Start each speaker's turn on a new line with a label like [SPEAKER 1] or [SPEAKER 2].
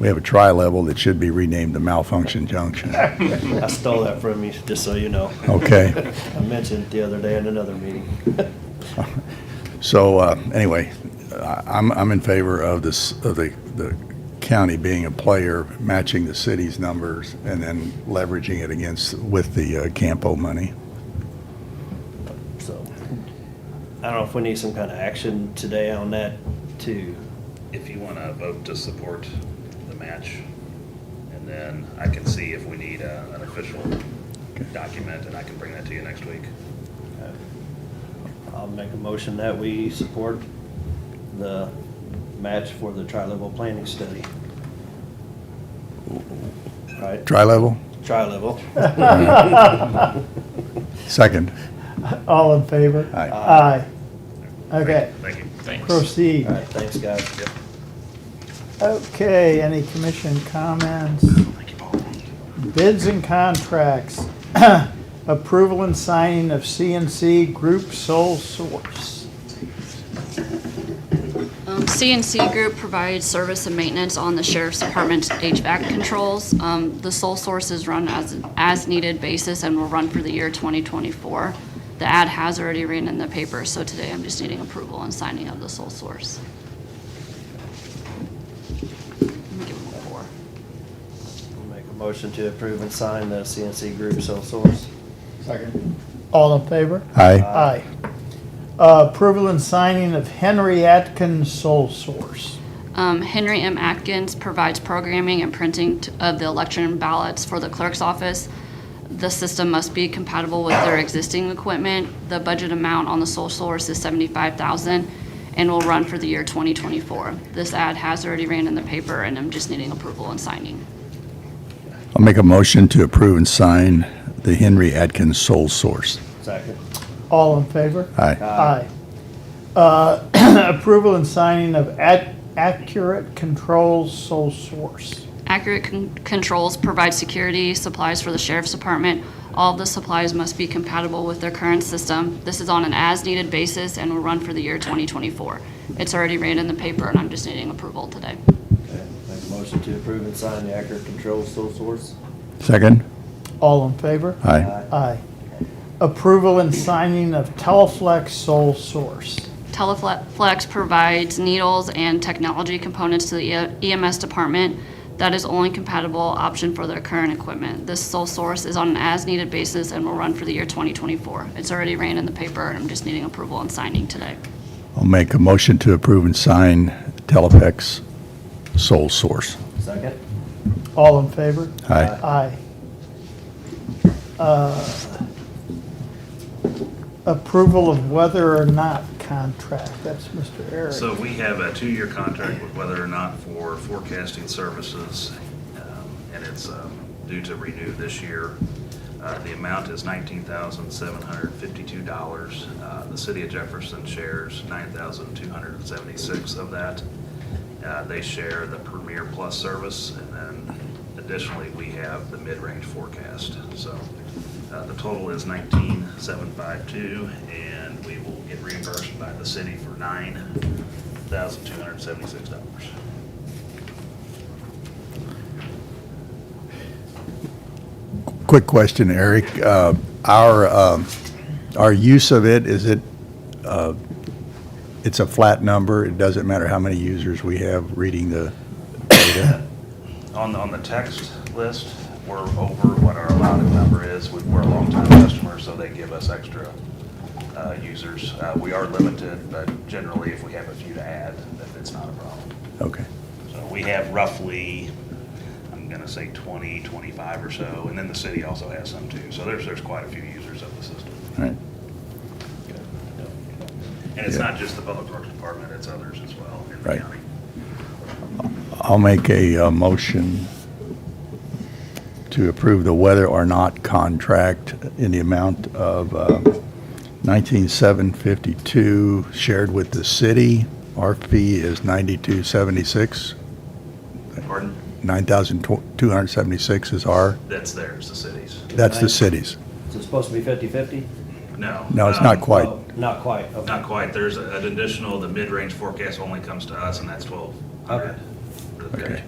[SPEAKER 1] We have a tri-level that should be renamed the malfunction junction.
[SPEAKER 2] I stole that from you, just so you know.
[SPEAKER 1] Okay.
[SPEAKER 2] I mentioned it the other day in another meeting.
[SPEAKER 1] So, uh, anyway, I- I'm, I'm in favor of this, of the, the county being a player, matching the city's numbers, and then leveraging it against, with the uh, Campo money.
[SPEAKER 2] So, I don't know if we need some kind of action today on that too.
[SPEAKER 3] if you want to vote to support the match. And then I can see if we need uh, an official document, and I can bring that to you next week.
[SPEAKER 2] I'll make a motion that we support the match for the tri-level planning study. Right,
[SPEAKER 1] Tri-level?
[SPEAKER 2] tri-level.
[SPEAKER 1] Second.
[SPEAKER 4] All in favor?
[SPEAKER 1] Aye.
[SPEAKER 4] Aye. Okay,
[SPEAKER 3] Thank you.
[SPEAKER 4] proceed.
[SPEAKER 2] All right, thanks, guys.
[SPEAKER 3] Yep.
[SPEAKER 4] Okay, any commission comments? Bids and contracts. Approval and signing of CNC Group Sole Source.
[SPEAKER 5] Um, CNC Group provides service and maintenance on the sheriff's department's HVAC controls. Um, The sole source is run as, as needed basis and will run for the year 2024. The ad has already ran in the paper, so today I'm just needing approval and signing of the sole source. Let me give them a four.
[SPEAKER 2] Make a motion to approve and sign the CNC Group sole source.
[SPEAKER 4] Second. All in favor?
[SPEAKER 1] Aye.
[SPEAKER 4] Aye. Uh, Approval and signing of Henry Atkins Sole Source.
[SPEAKER 5] Um, Henry M. Atkins provides programming and printing t- of the election ballots for the clerk's office. The system must be compatible with their existing equipment. The budget amount on the sole source is seventy-five thousand and will run for the year twenty twenty-four. This ad has already ran in the paper and I'm just needing approval and signing.
[SPEAKER 1] I'll make a motion to approve and sign the Henry Atkins sole source.
[SPEAKER 2] Second.
[SPEAKER 4] All in favor?
[SPEAKER 1] Aye.
[SPEAKER 4] Aye. Uh, Approval and signing of Ac- Accurate Controls Sole Source.
[SPEAKER 5] Accurate con- controls provide security supplies for the sheriff's department. All of the supplies must be compatible with their current system. This is on an as-needed basis and will run for the year 2024. It's already ran in the paper, and I'm just needing approval today.
[SPEAKER 2] Okay. Make a motion to approve and sign the Accurate Control sole source.
[SPEAKER 1] Second?
[SPEAKER 4] All in favor?
[SPEAKER 1] Aye.
[SPEAKER 4] Aye. Approval and signing of Teleflex sole source.
[SPEAKER 5] Teleflex provides needles and technology components to the E- EMS department that is only compatible option for their current equipment. This sole source is on an as-needed basis and will run for the year 2024. It's already ran in the paper, and I'm just needing approval and signing today.
[SPEAKER 1] I'll make a motion to approve and sign Telepex sole source.
[SPEAKER 2] Second.
[SPEAKER 4] All in favor?
[SPEAKER 1] Aye.
[SPEAKER 4] Aye. Uh, Approval of whether or not contract, that's Mr. Eric.
[SPEAKER 3] So we have a two-year contract with Weather or Not for forecasting services, um, and it's um, due to renew this year. Uh, The amount is $19,752. Uh, The city of Jefferson shares $9,276 of that. Uh, They share the Premier Plus service, and then additionally, we have the mid-range forecast. So uh, the total is 19,752, and we will get reimbursed by the city for $9,276.
[SPEAKER 1] Quick question, Eric. Uh, Our, um, our use of it, is it, uh, it's a flat number? It doesn't matter how many users we have reading the data?
[SPEAKER 3] On, on the text list, we're over what our allowed number is. We- We're a longtime customer, so they give us extra uh, users. Uh, We are limited, but generally, if we have a few to add, then it's not a problem.
[SPEAKER 1] Okay.
[SPEAKER 3] So we have roughly, I'm gonna say 20, 25 or so, and then the city also has some too. So there's, there's quite a few users of the system.
[SPEAKER 1] All right.
[SPEAKER 3] And it's not just the public works department, it's others as well in the
[SPEAKER 1] Right.
[SPEAKER 3] county.
[SPEAKER 1] I'll make a uh, motion to approve the whether or not contract in the amount of uh, 19,752 shared with the city. Our fee is 9276.
[SPEAKER 3] Pardon?
[SPEAKER 1] 9,276 is our,
[SPEAKER 3] That's theirs, the city's.
[SPEAKER 1] that's the city's.
[SPEAKER 2] Is it supposed to be fifty-fifty? Oh,
[SPEAKER 3] No.
[SPEAKER 1] No, it's
[SPEAKER 3] um,
[SPEAKER 1] not quite.
[SPEAKER 2] Not quite, okay.
[SPEAKER 3] Not quite. There's an additional, the mid-range forecast only comes to us, and that's 1,200.
[SPEAKER 2] Okay.
[SPEAKER 3] for the
[SPEAKER 1] Okay.
[SPEAKER 3] county.